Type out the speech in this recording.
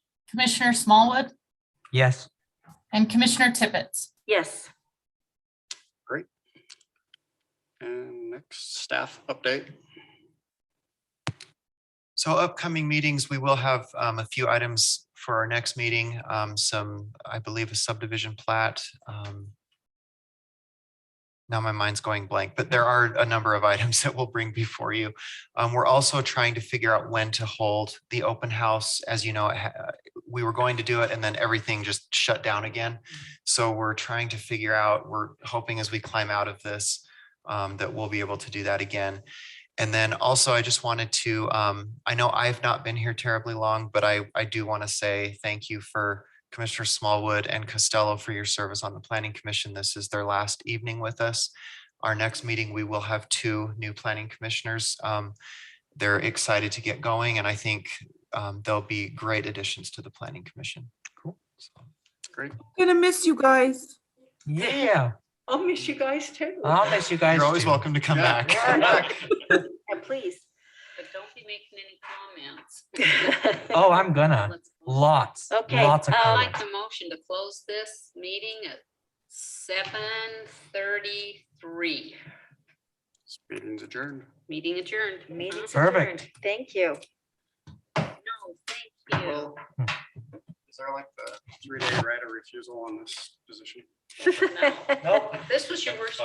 Commissioner Smallwood, Yes. and Commissioner Tippett. Yes. And next, staff update. So upcoming meetings, we will have um, a few items for our next meeting, um, some, I believe, a subdivision plat. um, Now my mind's going blank, but there are a number of items that we'll bring before you. Um, We're also trying to figure out when to hold the open house. As you know, it ha- we were going to do it and then everything just shut down again. So we're trying to figure out, we're hoping as we climb out of this, um, that we'll be able to do that again. And then also, I just wanted to, um, I know I've not been here terribly long, but I, I do want to say thank you for Commissioner Smallwood and Costello for your service on the Planning Commission. This is their last evening with us. Our next meeting, we will have two new planning commissioners. Um, they're excited to get going, and I think um, they'll be great additions to the Planning Commission. Cool. Great. Gonna miss you guys. Yeah, I'll miss you guys too. I'll miss you guys. You're always too. welcome to come Yeah. back. Yeah. Yeah, But don't be making any comments. please. Oh, I'm gonna. Let's- Lots, Okay, lots of uh, I'd like comments. the motion to close this meeting at seven thirty-three. Meeting's adjourned. Meeting adjourned. Uh-huh. Meeting's Perfect. adjourned. Thank you. No, thank you. Well, Is there like the three-day right of refusal on this position? No. Nope. This was your worst